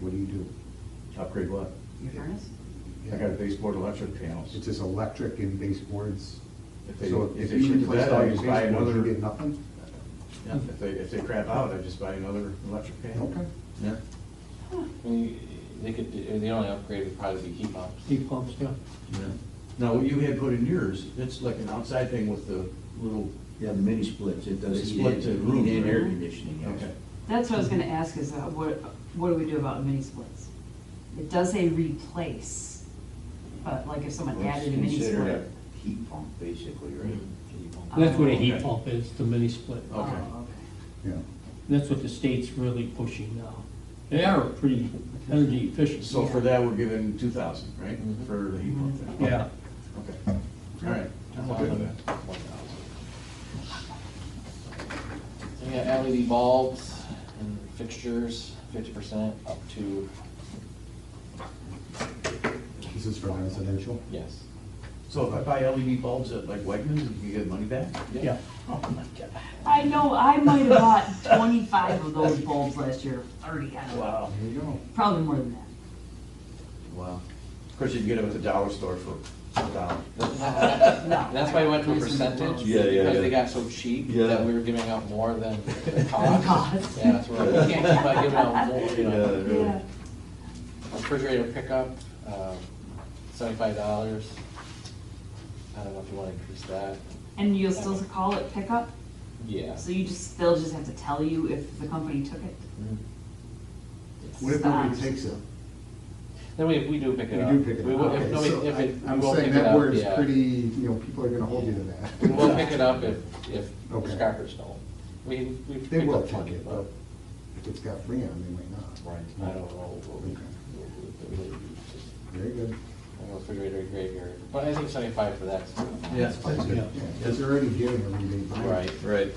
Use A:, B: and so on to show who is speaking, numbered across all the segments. A: What do you do?
B: Upgrade what?
A: Your
C: furnace?
B: I got a baseboard electric panels.
A: It's just electric and baseboards.
B: If they,
A: So
B: if
A: if
B: they
A: you
B: shoot to
A: replace
B: that,
A: all
B: I
A: your
B: just buy
A: baseboards, you get
B: another,
A: nothing?
B: Yeah, if they, if they crap out, I just buy another electric panel.
A: Okay.
B: Yeah.
D: I mean, They could, the only upgrade would probably be heat pumps.
E: heat pumps, yeah.
B: Yeah. Now, what you had put in yours, it's like an outside thing with the little,
F: Yeah, the mini splits, it does
B: They
F: heat
B: split
F: and,
B: the room,
F: heat and air
B: right?
F: conditioning, yes.
B: okay.
C: That's what I was gonna ask is, uh, what, what do we do about mini splits? It does say replace, but like if someone
F: Well, it's
C: added a mini Mm-hmm.
F: considered
C: split.
F: a Heat pump, basically, right?
C: Uh,
E: That's what a
B: Okay.
E: heat pump is, the mini split.
C: Oh,
B: Okay.
A: Yeah.
E: That's what the state's really pushing now. They are pretty energy efficient.
B: So for that, we're giving two thousand, right, for the heat pump thing?
E: Yeah,
B: Okay, all right. I'm okay with that.
D: So you got LED bulbs and fixtures, fifty percent up to,
A: This is for residential?
D: yes.
B: So if I buy LED bulbs at like Wegmans, you get money back?
E: yeah.
B: Oh, my God.
C: I know, I might have bought twenty-five of those bulbs last year, thirty, I don't know,
B: Wow.
A: There you go.
C: probably more than that.
B: Wow. Of course, you can get them at the dollar store for a dollar.
C: No.
D: That's why I went to a percentage.
G: Yeah, yeah,
D: Because
G: yeah.
D: they got so cheap
G: Yeah.
D: that we were giving out more than the cost.
C: cost.
D: Yeah, so we're like, we can't keep on giving out more, you know.
C: Yeah.
G: Yeah,
D: Refrigerator pickup, um, seventy-five dollars. I don't know if you wanna increase that.
C: And you'll still call it pickup,
D: Yeah.
C: so you just, they'll just have to tell you if the company took it?
D: Mhm.
A: What if
C: Ah.
A: nobody takes it?
D: Then we, we do pick
A: You
D: it up.
A: do pick it
D: We
A: up.
D: will- if
A: Okay,
D: nobody,
A: so
D: if it,
A: I-
D: we
A: I'm
D: will
A: saying
D: pick it
A: that
D: up,
A: word is
D: yeah.
A: pretty, you know, people are gonna hold you to that.
D: We'll pick it up if, if
A: Okay.
D: scrappers don't. We, we.
A: They
D: picked
A: will
D: up
A: take
D: plenty,
A: it, but if it's got freon, they might not.
D: Right, I don't know. what we-
A: Okay.
D: what we- what we- just-
A: Very good.
D: I don't know, Refrigerator, graveyard, but I think seventy-five for that's.
G: Yeah, that's
A: Yeah,
G: good.
A: Because they're already giving everybody.
D: Right.
G: Right.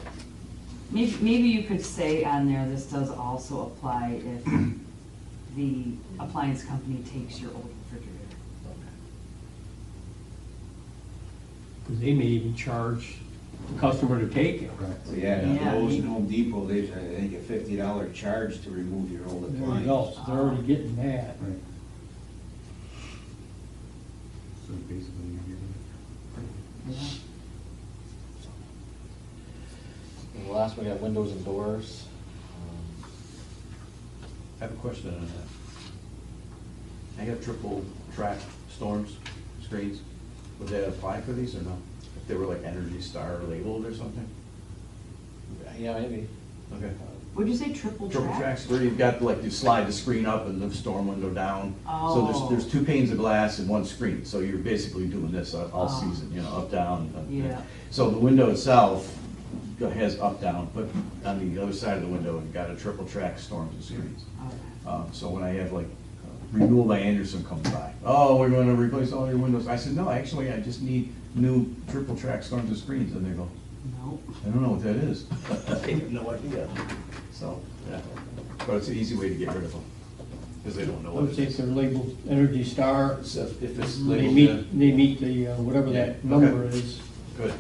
C: Maybe, maybe you could say on there, this does also apply if the appliance company takes your old refrigerator.
E: Because they may even charge the customer to take it.
A: Right.
F: So, yeah,
C: Yeah.
F: Lowe's and Home Depot, they, I think a fifty dollar charge to remove your old
E: There you go,
F: appliance.
E: so they're already getting that.
A: Right. So basically, you're giving.
D: And the last, we got windows and doors. Um,
B: I have a question on that. I have triple track storms, screens, would that apply for these or no? If they were like Energy Star labeled or something?
D: Yeah, maybe.
B: Okay.
C: Would you say triple
B: Triple
C: track?
B: tracks where you've got like you slide the screen up and the storm window down. So
C: Oh.
B: there's, there's two panes of glass and one screen, so you're basically doing this all- all
C: Ah.
B: season, you know, up, down. up,
C: Yeah.
B: So the window itself has up, down, but on the other side of the window, you've got a triple track storms and screens.
C: Okay.
B: Um, So when I have like renewal by Anderson comes by, oh, we're gonna replace all your windows. I said, no, actually, I just need new triple track storms and screens. And they go,
C: No.
B: I don't know what that is. They have no idea. So, yeah, but it's an easy way to get rid of them, because they don't know
E: I
B: what
E: would
B: it
E: say if
B: is.
E: they're labeled Energy Star,
B: So If it's
E: they
B: labeled, uh,
E: meet, they meet the, uh, whatever
B: Yeah,
E: that
B: okay.
E: number is.
B: good.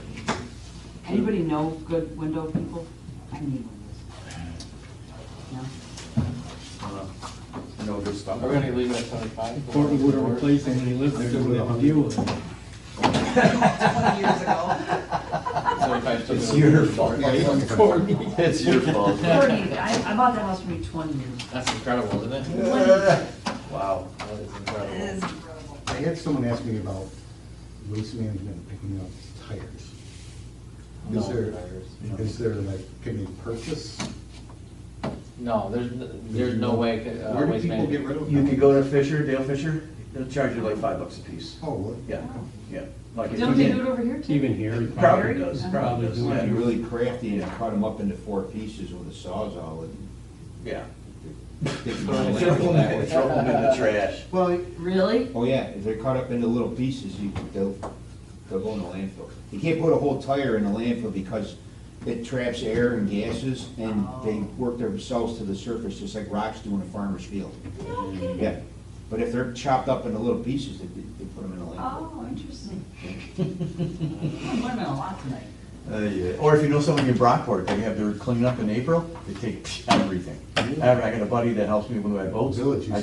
C: Anybody know good window people? I need windows. No?
B: Uh, You know, good stuff.
D: Are we gonna leave it at seventy-five? for
E: Courtney would have
D: doors?
E: replaced them when he lived there, he would have to deal with it.
C: Years ago.
D: Seventy-five still.
G: It's
D: gonna be-
G: your fault.
E: Courtney.
G: It's your fault.
C: Forty, I, I bought that house for me twenty years.
D: That's incredible, isn't it?
B: Wow.
D: That is
C: It
D: incredible.
C: is incredible.
A: I had someone ask me about waste management picking up tires. Is
D: No,
A: there,
D: tires.
A: is there like, can you purchase?
D: No, there's, n- there's no way. uh,
A: Where do
D: Waste
A: people get
D: Management-
A: rid of
B: You
A: them?
B: could go to Fisher, Dale Fisher, they'll charge you like five bucks a piece.
A: Oh, what?
B: Yeah, yeah. Like if
C: Don't
B: you
C: they
B: did-
C: do it over here too?
E: Even here.
B: Probably does,
C: Uh-huh.
B: probably does,
F: You
B: yeah.
F: wanna be really crafty and cut them up into four pieces with a sawzall and.
B: Yeah.
F: stick 'em
B: Throw
F: on a
B: them
F: landfill that
B: in
F: way.
B: throw them in the trash.
A: Well,
C: Really?
F: Oh, yeah, if they're cut up into little pieces, you, they'll, they'll go in the landfill. You can't put a whole tire in the landfill because it traps air and gases, and they
C: Oh.
F: work themselves to the surface, just like rocks do in a farmer's field.
C: No kidding.
F: Yeah, but if they're chopped up into little pieces, they, they put them in the landfill.
C: Oh, interesting. I'm learning a lot tonight.
B: Uh, yeah. Or if you know someone in Brockport, they have their cleanup in April, they take everything. I I got a buddy that helps me when I boats.
A: Village used
B: I